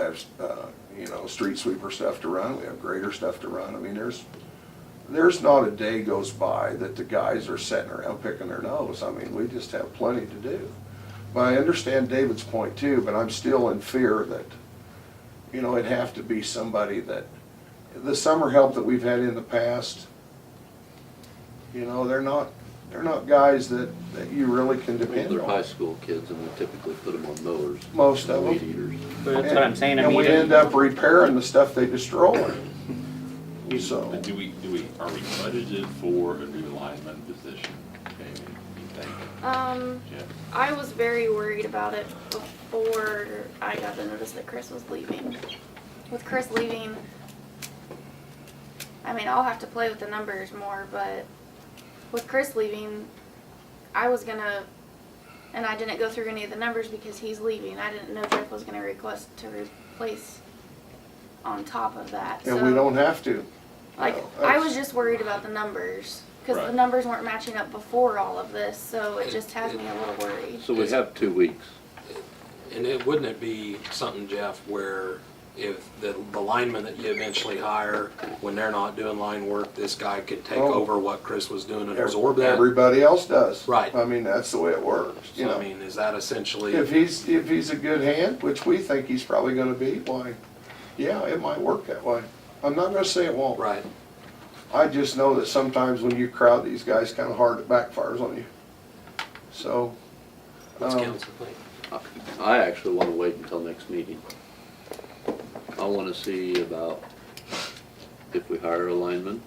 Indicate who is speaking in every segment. Speaker 1: have, uh, you know, street sweeper stuff to run, we have grader stuff to run. I mean, there's, there's not a day goes by that the guys are sitting around picking their nose. I mean, we just have plenty to do. But I understand David's point too, but I'm still in fear that, you know, it'd have to be somebody that, the summer help that we've had in the past, you know, they're not, they're not guys that, that you really can depend
Speaker 2: They're high
Speaker 1: on,
Speaker 2: school kids and we typically put them on mowers.
Speaker 1: most of
Speaker 2: Weed
Speaker 1: them.
Speaker 2: eaters.
Speaker 3: That's what I'm saying, I
Speaker 1: And
Speaker 3: mean,
Speaker 1: we end up repairing the stuff they destroy. So,
Speaker 4: But do we, do we, are we budgeted for a new lineman position, Jamie, you think,
Speaker 5: Um,
Speaker 4: Jeff?
Speaker 5: I was very worried about it before I got the notice that Chris was leaving. With Chris leaving, I mean, I'll have to play with the numbers more, but with Chris leaving, I was gonna, and I didn't go through any of the numbers because he's leaving. I didn't know Jeff was gonna request to replace on top of that, so.
Speaker 1: and we don't have to.
Speaker 5: Like,
Speaker 6: Oh,
Speaker 1: No,
Speaker 5: I was just worried about the numbers, cause the
Speaker 4: Right.
Speaker 5: numbers weren't matching up before all of this, so it just has me a little worried.
Speaker 2: So we have two weeks.
Speaker 6: And it, wouldn't it be something, Jeff, where if the, the lineman that you eventually hire, when they're not doing line work, this guy could take
Speaker 1: Oh.
Speaker 6: over what Chris was doing and
Speaker 1: Ev-
Speaker 6: absorb that?
Speaker 1: Everybody else does.
Speaker 6: Right.
Speaker 1: I mean, that's the way it works, you
Speaker 6: So I
Speaker 1: know.
Speaker 6: mean, is that essentially?
Speaker 1: If he's, if he's a good hand, which we think he's probably gonna be, why, yeah, it might work that way. I'm not gonna say it won't.
Speaker 6: Right,
Speaker 1: I just know that sometimes when you crowd these guys kinda hard, it backfires on you. So.
Speaker 6: what's
Speaker 1: um,
Speaker 6: council think?
Speaker 2: I- I actually want to wait until next meeting. I want to see about if we hire a lineman.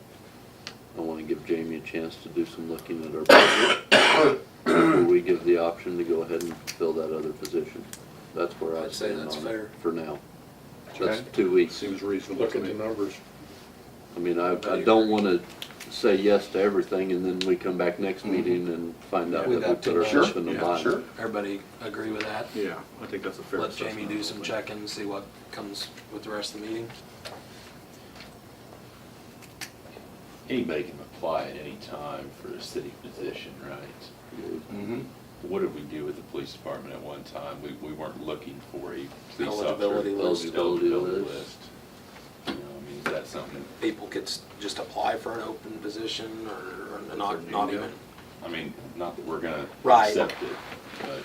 Speaker 2: I want to give Jamie a chance to do some looking at our budget. Before we give the option to go ahead and fill that other position. That's where I
Speaker 6: I'd say
Speaker 2: stand
Speaker 6: that's
Speaker 2: on
Speaker 6: fair.
Speaker 2: it for now. That's
Speaker 1: Okay.
Speaker 2: two weeks.
Speaker 7: Seems reasonable to me.
Speaker 2: numbers. I mean, I, I don't wanna say yes to everything and then we come back next meeting and find out
Speaker 6: Yeah.
Speaker 2: that we put ourselves in the
Speaker 1: Yeah, sure.
Speaker 2: bind.
Speaker 6: Everybody agree with that?
Speaker 7: Yeah, I think that's a fair
Speaker 6: Let
Speaker 7: assessment.
Speaker 6: Jamie do some checking, see what comes with the rest of the meeting?
Speaker 4: Anybody can apply at any time for a city position, right?
Speaker 1: Mhm.
Speaker 4: What did we do with the police department at one time? We, we weren't looking for a police officer.
Speaker 6: Eligibility list.
Speaker 4: Eligibility
Speaker 2: Eligibility
Speaker 4: list. You know, I mean, is that something,
Speaker 6: People could s- just apply for an open position or or not, not even?
Speaker 4: I mean, not that we're gonna
Speaker 6: Right.
Speaker 4: accept it, but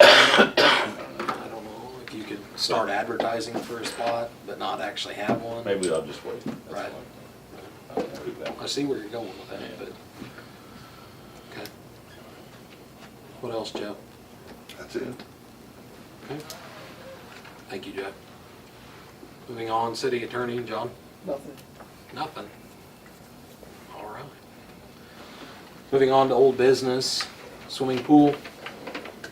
Speaker 6: I
Speaker 4: I don't know.
Speaker 6: don't know, if you could start advertising for a spot, but not actually have one.
Speaker 4: Maybe I'll just wait. That's
Speaker 6: Right.
Speaker 4: all. I don't know that.
Speaker 6: I see where you're going with that, but, okay. What else, Jeff?
Speaker 1: That's it.
Speaker 6: Thank you, Jeff. Moving on, city attorney, John?
Speaker 8: Nothing.
Speaker 6: Nothing. All right. Moving on to old business, swimming pool.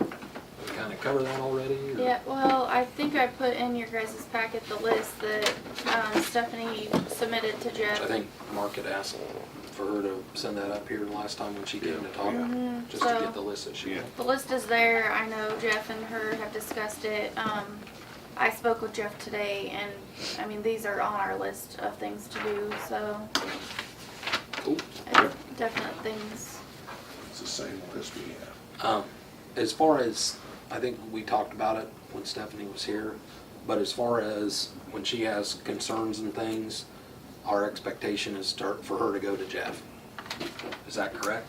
Speaker 6: We kind of covered that already? or-
Speaker 5: Yeah, well, I think I put in your guys' packet the list that um, Stephanie submitted to
Speaker 6: I
Speaker 5: Jeff.
Speaker 6: think Mark had asked for her to send that up here last time when she came to talk,
Speaker 5: Mhm,
Speaker 6: just to
Speaker 5: so-
Speaker 6: get the list that she wanted.
Speaker 5: The list is there, I know Jeff and her have discussed it, um, I spoke with Jeff today, and, I mean, these are on our list of things to do, so.
Speaker 6: Cool.
Speaker 5: It's Definite things.
Speaker 1: It's the same list we have.
Speaker 6: Um, as far as, I think we talked about it when Stephanie was here, but as far as when she has concerns and things, our expectation is to, for her to go to Jeff. Is that correct?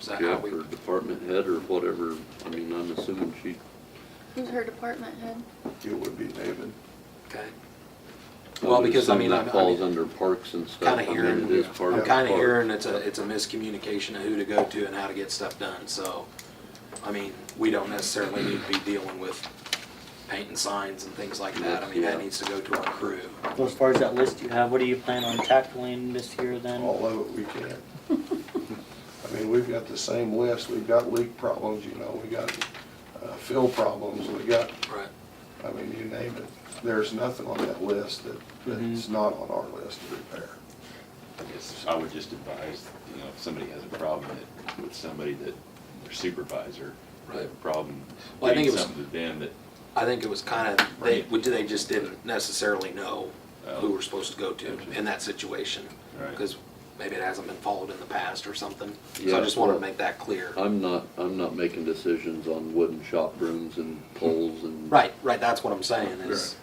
Speaker 6: Is that how
Speaker 2: Yeah,
Speaker 6: we,
Speaker 2: for department head or whatever, I mean, I'm assuming she,
Speaker 5: Who's her department head?
Speaker 1: It would be David.
Speaker 6: okay?
Speaker 2: I
Speaker 6: Well,
Speaker 2: would
Speaker 6: because, I
Speaker 2: assume
Speaker 6: mean, I'm-
Speaker 2: that
Speaker 6: I
Speaker 2: falls
Speaker 6: mean-
Speaker 2: under parks and stuff.
Speaker 6: Kinda
Speaker 2: I mean,
Speaker 6: hearing,
Speaker 2: it is part
Speaker 6: I'm
Speaker 2: of
Speaker 6: kinda
Speaker 2: parks.
Speaker 6: hearing it's a, it's a miscommunication of who to go to and how to get stuff done, so, I mean, we don't necessarily need to be dealing with painting signs and things like that, I mean, that
Speaker 2: Yeah.
Speaker 6: needs to go to our crew.
Speaker 3: well, as far as that list you have, what do you plan on tackling this year then?
Speaker 1: All of it we can. I mean, we've got the same list, we've got leak problems, you know, we got uh, fill problems, we got,
Speaker 6: Right.
Speaker 1: I mean, you name it. There's nothing on that list that, that's not on our list to repair.
Speaker 4: I guess I would just advise, you know, if somebody has a problem that, with somebody that, their supervisor, they have a
Speaker 6: Right.
Speaker 4: problem
Speaker 6: Well, I think
Speaker 4: doing
Speaker 6: it was-
Speaker 4: something to them that,
Speaker 6: I think it was kind of, they,
Speaker 4: Right.
Speaker 6: we- they just didn't necessarily know
Speaker 2: Oh.
Speaker 6: who we're supposed to go to in that situation.
Speaker 4: Right.
Speaker 6: Because maybe it hasn't been followed in the past or something. So
Speaker 2: Yeah.
Speaker 6: I just want to make that clear.
Speaker 2: I'm not, I'm not making decisions on wooden shop brooms and poles and.
Speaker 6: Right, right, that's what I'm saying is,